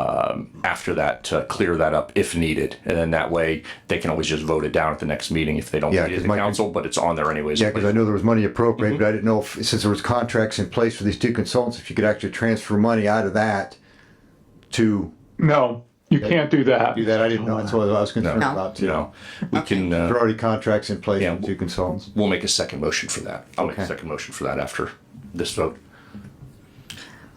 um, after that to clear that up if needed. And then that way, they can always just vote it down at the next meeting if they don't Yeah, need it at 'cause the my- council, but it's on there anyways. Yeah, because I know there was money Mm-hmm. appropriated, but I didn't know if, since there was contracts in place for these two consultants, if you could actually transfer money out of that to No, you can't do that. do that. I didn't know. That's what I was concerned No. about You too. know, we can, uh, There are already contracts in place Yeah. for two consultants. we'll make a second motion for that. I'll make a Okay. second motion for that after this vote.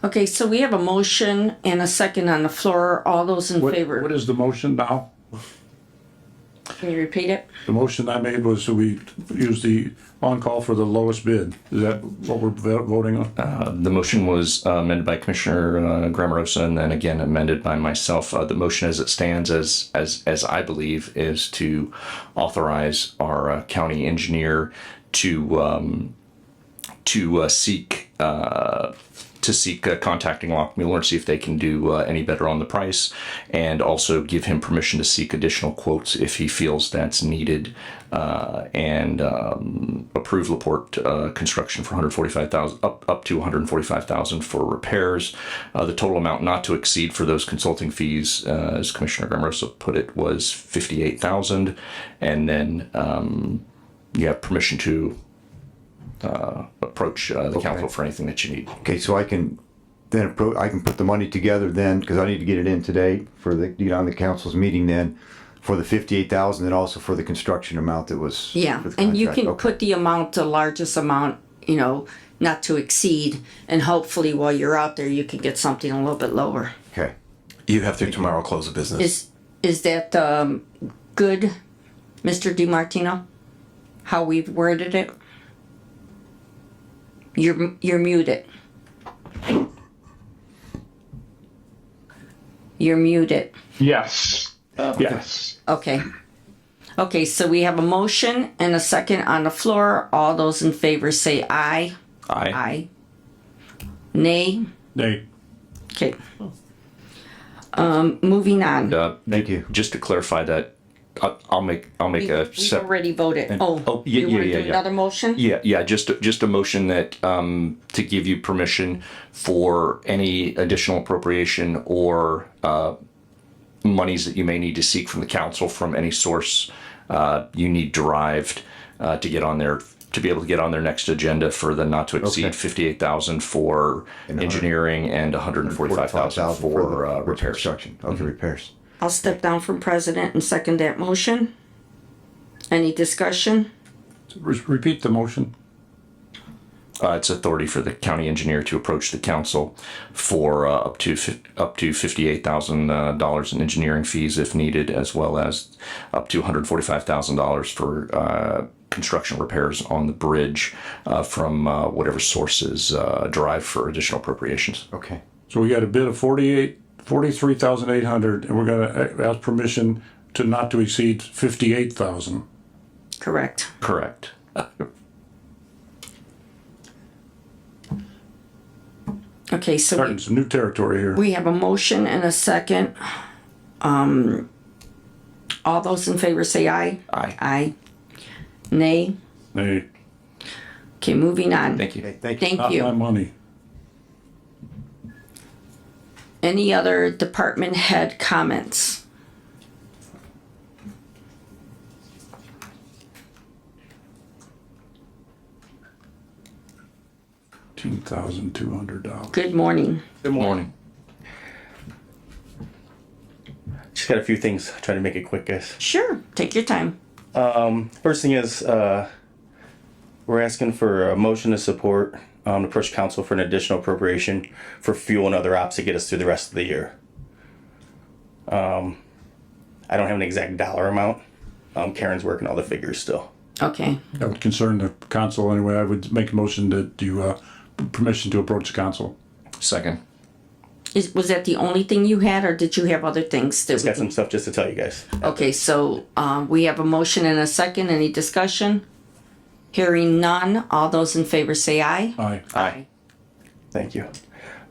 Okay, so we have a motion and a second on the floor. All those in What- favor? What is the motion now? Can you repeat it? The motion I made was that we use the on-call for the lowest bid. Is that what we're vo- voting on? The motion was uh, amended by Commissioner uh, Grammerosa and then again amended by myself. Uh, the motion as it stands, as, as, as I believe, is to authorize our uh, county engineer to, um, to uh, seek, uh, to seek uh, contacting Lockmuir and see if they can do uh, any better on the price and also give him permission to seek additional quotes if he feels that's needed uh, and um, approve Laporte uh, construction for 145,000 up up to 145,000 for repairs. Uh, the total amount not to exceed for those consulting fees, uh, as Commissioner Grammerosa put it, was 58,000, and then um, you have permission to uh, approach uh, the council for anything that you need. Okay, so I can then appro, I can put the money together then, because I need to get it in today for the, you know, on the council's meeting then, for the fifty-eight thousand and also for the construction amount that was. Yeah, for the and you contract. can Okay. put the amount, the largest amount, you know, not to exceed. And hopefully while you're out there, you can get something a little bit lower. Okay, You have to tomorrow close the business. Is, is that, um, good, Mr. DiMartino? How we've worded it? You're, you're muted. You're muted. Yes, Uh, yes. Okay. Okay, so we have a motion and a second on the floor. All those in favor say aye. Aye. Nay. Nay. Okay. Um, moving on. Uh, thank you. just to clarify that, I, I'll make I'll make We- a We've separate. already voted. oh, Oh, yeah, you yeah, want to yeah, do yeah. another motion? Yeah, yeah, just just a motion that um, to give you permission for any additional appropriation or uh, monies that you may need to seek from the council from any source uh, you need derived uh, to get on there to be able to get on their next agenda for the not to exceed Okay. fifty eight thousand for a hundred- engineering and one hundred and forty five thousand 45,000 for, the- uh, repairs. Mm-hmm. Construction, okay, repairs. I'll step down from president and second that motion. Any discussion? Re- Repeat the motion. uh, its authority for the county engineer to approach the council for uh, up to fif- up to fifty-eight thousand uh, dollars in engineering fees if needed, as well as up to one hundred forty-five thousand dollars for uh, construction repairs on the bridge uh, from uh, whatever sources uh, derived for additional appropriations. Okay, So we got a bid of forty-eight, forty-three thousand eight hundred, and we're gonna a- ask permission to not to exceed fifty-eight thousand. Correct. Correct. Okay, so we- Starting some new territory here. we have a motion and a second. Um, all those in favor say aye. Aye. Aye. Nay. Nay. Okay, moving on. Thank you. okay, thank you. Thank Not my you. money. Any other department head comments? Two thousand two hundred dollars. Good morning. Good morning. Just got a few things. Try to make it quick, guys. Sure, take your time. First thing is, uh, we're asking for a motion to support um, to push council for an additional appropriation for fuel and other ops to get us through the rest of the year. Um, I don't have an exact dollar amount. Um, Karen's working all the figures still. Okay, That would concern the council anyway. I would make a motion that you, uh, permission to approach the council. Second. is, was that the only thing you had, or did you have other things? that Just we got some stuff just to tell you guys. Okay, so, um, we have a motion and a second. Any discussion? Hearing none. All those in favor say aye. Aye. Aye. Thank you.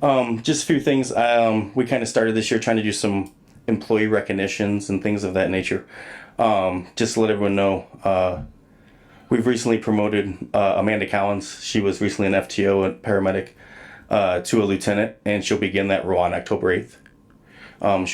Um, just a few things. Um, we kind of started this year trying to do some employee recognitions and things of that nature. Um, just to let everyone know, uh, we've recently promoted uh, Amanda Collins. She was recently an FTO and paramedic uh, to a lieutenant, and she'll begin that role on October 8th. Um,